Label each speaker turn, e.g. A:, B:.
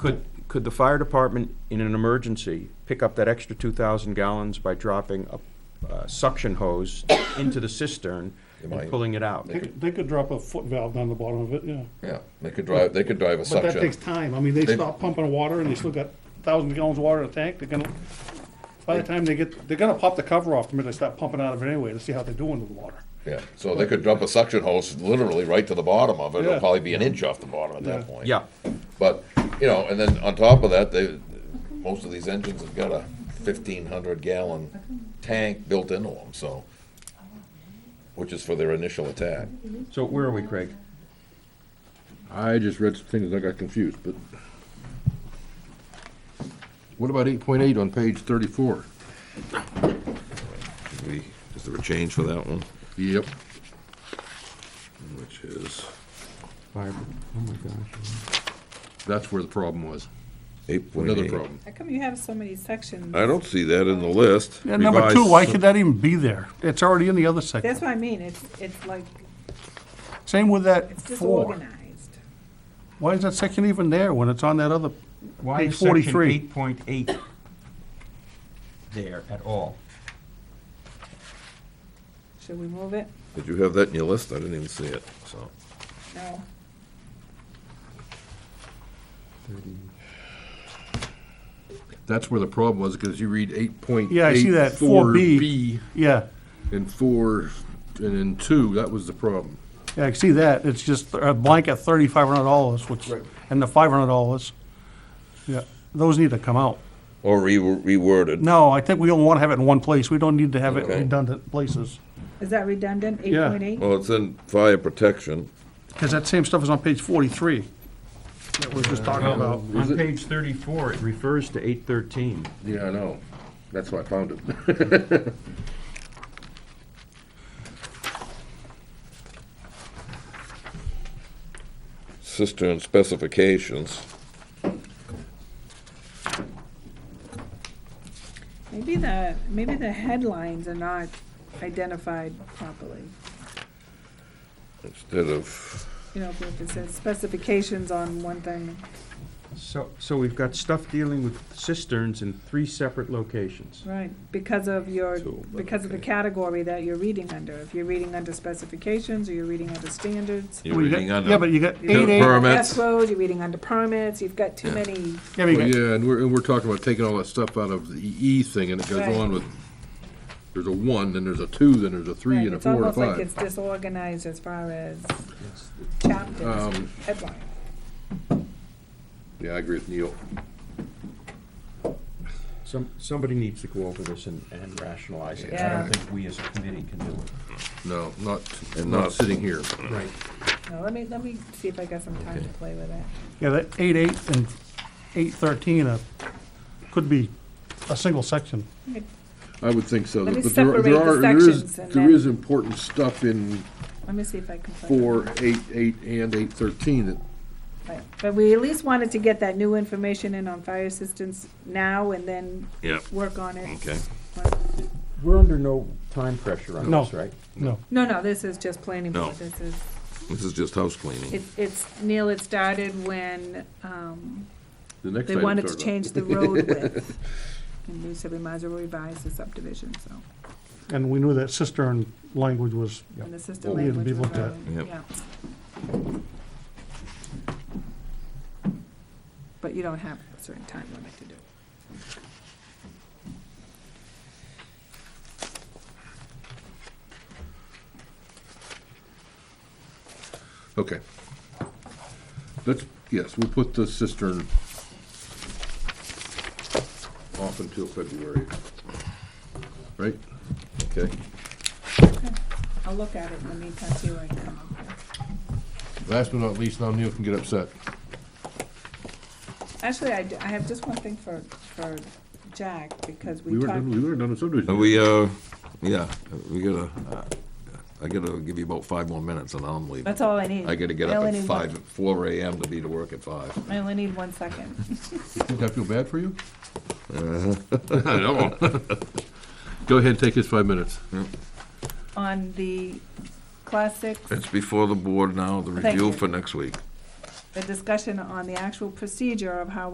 A: Could, could the fire department, in an emergency, pick up that extra 2,000 gallons by dropping a uh, suction hose into the cistern
B: They
A: and
B: might.
A: pulling it out?
B: They
C: They could, they could drop a foot valve down the bottom of it, yeah.
B: Yeah, they could drive, they could drive a
C: But that
B: suction.
C: takes time. I mean, they
B: They-
C: stop pumping water and they still got thousand gallons of water in the tank. They're gonna, by the time they get, they're gonna pop the cover off the minute they stop pumping out of it anyway to see how they're doing with the water.
B: Yeah, so they could dump a suction hose literally right to the bottom of it. It'll
C: Yeah.
B: probably be an inch off the bottom at
C: Yeah.
B: that point.
A: Yeah,
B: But, you know, and then on top of that, they, most of these engines have got a fifteen hundred gallon tank built into them, so. Which is for their initial attack.
A: so where are we, Craig?
D: I just read some things, I got confused, but. What about eight point eight on page thirty-four?
B: We, is there a change for that one?
D: Yep. Which is,
A: Fire, oh my gosh.
D: that's where the problem was,
B: Eight point
D: another problem.
E: How come you have so many sections?
F: Uh,
B: I don't see that in the list.
F: Yeah, number two, why could that even be there? It's already in the other section.
E: That's what I mean, it's, it's like,
F: Same with that
E: it's
F: four.
E: disorganized.
F: Why is that section even there when it's on that other?
A: Why
F: Page
A: is section
F: 43.
A: eight point eight there at all?
E: Should we move it?
B: Did you have that in your list? I didn't even see it, so.
E: No.
D: That's where the problem was, because you read eight point.
F: Yeah, I see that, 4B. Yeah,
D: And four, and then two, that was the problem.
F: yeah, I see that. It's just a blanket thirty-five hundred dollars, which, and the five hundred dollars. Yeah, those need to come out.
B: Or re- reworded.
F: No, I think we only want to have it in one place. We don't need to have it
B: Okay.
F: redundant places.
E: Is that redundant, eight
F: Yeah.
E: point eight?
B: Well, it's in fire protection.
F: Because that same stuff is on page forty-three that we're just talking about.
A: On page thirty-four, it refers to eight thirteen.
D: Yeah, I know, that's why I found it.
B: cistern specifications.
E: Maybe the, maybe the headlines are not identified properly.
B: Instead of,
E: You know, if it says specifications on one thing,
A: So, so we've got stuff dealing with cisterns in three separate locations.
E: right, because of your,
B: So,
E: because of the category that you're reading under. If you're reading under specifications, or you're reading under standards.
B: you're
F: Well, you got-
B: reading on
F: Yeah, but you got
E: you're
F: eight,
E: reading
F: eight,
E: under
B: Permits.
E: F roads, you're reading under permits, you've got too many,
F: yeah, but you
D: Well,
F: got-
D: yeah, and we're, and we're talking about taking all that stuff out of the E thing, and it goes
E: Right.
D: on with, there's a one, then there's a two, then there's a three,
E: right,
D: and a
E: it's
D: four, and a
E: almost like it's
D: five.
E: disorganized as far as chapters,
D: Um,
E: headlines.
D: Yeah, I agree with Neil.
A: Some, somebody needs to go over this and, and rationalize it. I
E: Yeah.
A: don't think we as a committee can do it.
D: No, not, and not sitting here.
A: Right.
E: No, let me, let me see if I got some time to play with it.
F: yeah, that eight-eight and eight-thirteen are, could be a single section.
D: I would think so.
E: Let me
D: but there are- there
E: separate the
D: are- there is-
E: sections and
D: There
E: then-
D: is important stuff in
E: Let me see if I can. play with
D: four,
E: it.
D: eight, eight, and eight thirteen that
E: Right. But we at least wanted to get that new information in on fire assistance now and then
B: Yep.
E: work on it.
B: Okay.
A: We're under no time pressure on
F: No.
A: this, right?
F: No,
E: No, no, this is just planning
B: No.
E: board. This is,
B: This is just house cleaning.
E: it- it's, Neil, it started when um,
D: the next
E: they
D: item.
E: wanted to
D: talked about.
E: change the road width. And we said we might as well revise the subdivision, so,
F: and we knew that cistern language was,
E: and the system
F: Well, we had to
E: language
F: be
E: was
F: looked at.
E: relevant,
B: Yep.
E: yeah. But you don't have a certain time limit to do it.
D: Okay. Let's, yes, we'll put the cistern off until February. Right?
B: Okay.
E: I'll look at it in the meantime, see where I can come up with.
D: Last but not least, now Neil can get upset.
E: Actually, I, d- I have just one thing for, for Jack, because
D: We
E: we
D: weren't,
E: talked,
D: done- Oh, we weren't done with subdivision.
B: Are we, uh, yeah, we gotta, uh, I gotta give you about five more minutes and I'm leaving.
E: that's all I need.
B: I gotta get
E: I
B: up
E: only
B: at
E: need one-
B: five, four AM to be to work at five.
E: I only need one second.
D: Think I feel bad for you? I know. Go ahead and take his five minutes.
E: On the classics,
B: It's before the board now, the
E: Thank
B: review
E: you.
B: for next week.
E: the discussion on the actual procedure of how